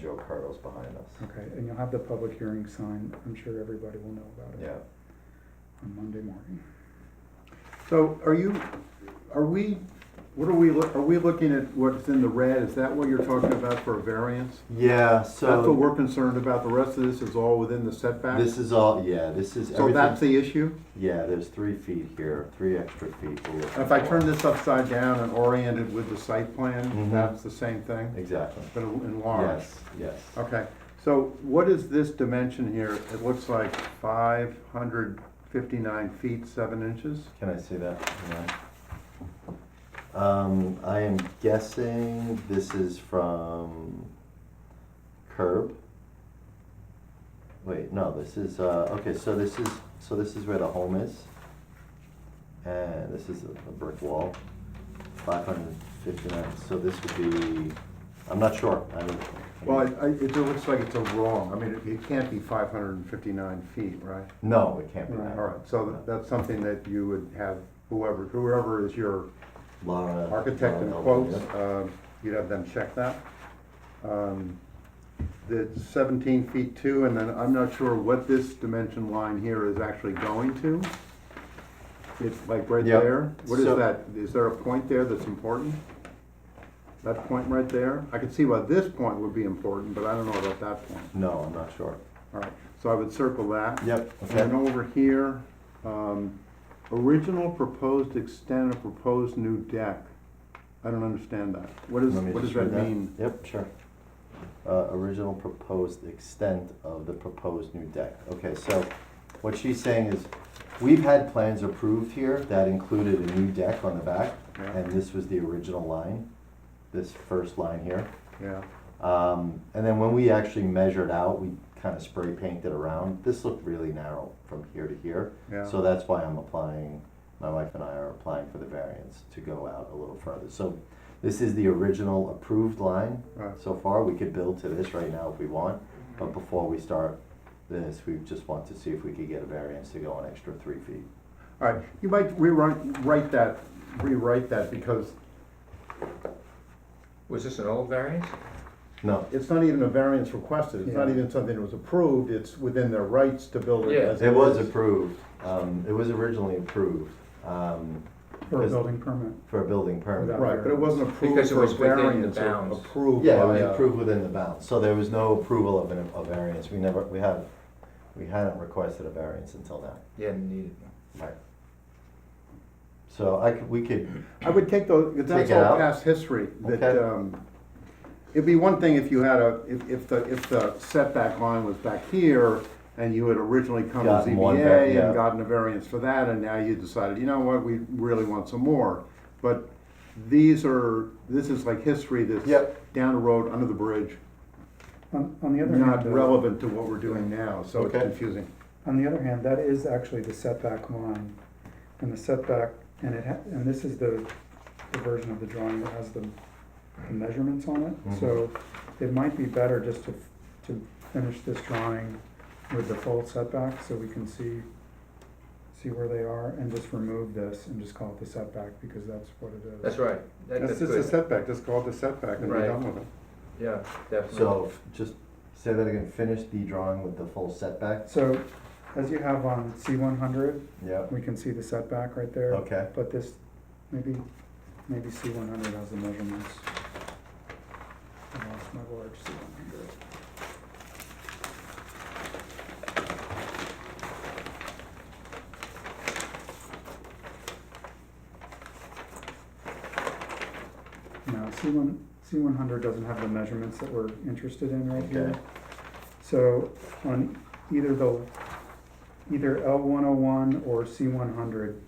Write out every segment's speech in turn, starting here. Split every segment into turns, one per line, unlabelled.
Joe Cardo's behind us.
Okay, and you'll have the public hearing sign, I'm sure everybody will know about it
Yeah,
on Monday morning.
So are you, are we, what are we, look- are we looking at what's in the red? Is that what you're talking about for a variance?
Yeah,
That's what
so
we're concerned about. The rest of this is all within the setback?
this is all, yeah, this is
So that's
everything.
the issue?
Yeah, there's three feet here, three extra feet. we're looking
If I
for.
turn this upside down and orient it with the site plan,
Mhm.
that's the same thing,
Exactly,
but enlarged?
yes, yes.
Okay, so what is this dimension here? It looks like five hundred fifty-nine feet, seven inches?
Can I see that? Hang on. Um, I am guessing this is from curb. Wait, no, this is, uh, okay, so this is, so this is where the home is. And this is a a brick wall, five hundred and fifty-nine, so this would be, I'm not sure, I don't.
Well, it, I- it looks like it's a wrong, I mean, it- it can't be five hundred and fifty-nine feet, right?
No, it can't be
All
that.
right, so that- that's something that you would have whoever, whoever is your
Laura.
architect in
Laura
quotes,
Elvin, Uh, yeah.
um, you'd have them check that. Um, The seventeen feet two, and then I'm not sure what this dimension line here is actually going to. It's like right
Yeah.
there, what is
So-
that, is there a point there that's important? That point right there, I could see why this point would be important, but I don't know about that point.
No, I'm not sure.
All right, so I would circle that.
Yep,
And
okay.
then over here, um, original proposed extent of proposed new deck. I don't understand that. What is,
Let me
what does
just
that
read
mean?
Yep, sure. Uh, original proposed extent of the proposed new deck. Okay, so what she's saying is, we've had plans approved here that included a new deck on the back,
Yeah.
and this was the original line, this first line here.
Yeah,
Um, and then when we actually measured out, we kind of spray painted around. This looked really narrow from here to here.
yeah.
So that's why I'm applying, my wife and I are applying for the variance to go out a little further. So this is the original approved line
Right.
so far. We could build to this right now if we want, but before we start this, we just want to see if we could get a variance to go an extra three feet.
All right, you might rewrite, write that, rewrite that because
was this an old variance?
No,
it's not even a variance requested. It's not
Yeah.
even something that was approved. It's within their rights to build it
Yeah.
as it
it was
is.
approved. Um, it was originally approved, um,
For a
Yes.
building permit,
for a building permit.
Without-
Right, but it wasn't approved
Because it
for
was
a
within the
variance, it
bounds.
was approved
Yeah, it
by
was
a.
approved within the bounds, so there was no approval of an, a variance, we never, we have, we hadn't requested a variance until now.
Yeah, needed.
Right. So I could, we could,
I would take those, because that's
Take it
all
out?
past history, that,
Okay.
um, it'd be one thing if you had a, if, if the, if the setback line was back here, and you had originally come to
Gotten one var-
ZBA
yeah.
and gotten a variance for that, and now you decided, you know what, we really want some more. But these are, this is like history that's
Yep.
down the road, under the bridge,
on, on the other hand,
not
though-
relevant to what we're doing now, so it's
Okay.
confusing.
on the other hand, that is actually the setback line. And the setback, and it, ha- and this is the, the version of the drawing that has the the measurements on it. So it might be better just to, to finish this drawing with the full setback so we can see, see where they are and just remove this and just call it the setback because that's what it is.
That's right. That-
That's
That's
just a
good.
setback, just call it a setback and be
Right.
done with it.
Yeah, definitely.
so f- just say that again, finish the drawing with the full setbacks.
So as you have on C one hundred,
Yep,
we can see the setback right there.
okay,
But this, maybe, maybe C one hundred has the measurements. I lost my large C one hundred. No, C one, C one hundred doesn't have the measurements that we're interested in right here.
Okay.
So on either the, either L one oh one or C one hundred,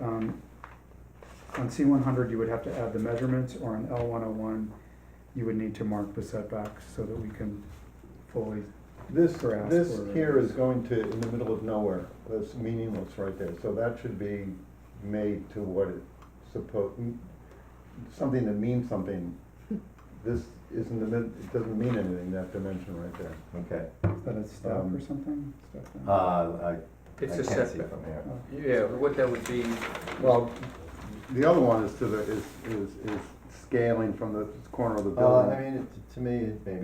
um, on C one hundred, you would have to add the measurements, or on L one oh one, you would need to mark the setbacks so that we can fully,
This,
grasp
this
or-
here is going to, in the middle of nowhere, that's meaningless right there, so that should be made to what it supposed, something that means something. This isn't, the min- it doesn't mean anything, that dimension right there.
okay.
is that a step
Um,
or something? Step down?
Uh, I, I
It's a
can't see
setback.
from here.
Oh.
Yeah, what that would be,
Well, the other one is to the, is, is, is scaling from the corner of the
Uh,
building.
I mean, it- to me, it maybe